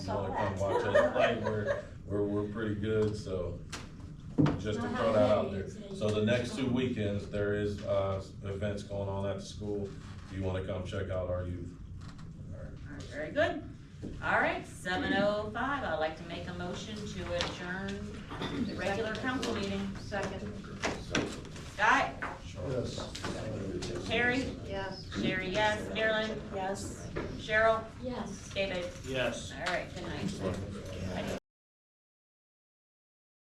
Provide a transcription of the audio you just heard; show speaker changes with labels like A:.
A: saw
B: wanna come
A: that.
B: watch us play, we're, we're, we're pretty good, so. Just to throw that out there. So the next two weekends, there is, uh, events going on at the school. If you wanna come check out our youth.
A: Alright, Very good. All right, seven oh five, I'd like to make a motion to adjourn the regular council meeting.
C: Second,
A: Guy,
D: Yes.
A: Terry,
C: yes.
A: Sherry, yes, Marilyn,
C: Yes.
A: Cheryl,
C: Yes.
A: David.
E: Yes.
A: All right, good night. I-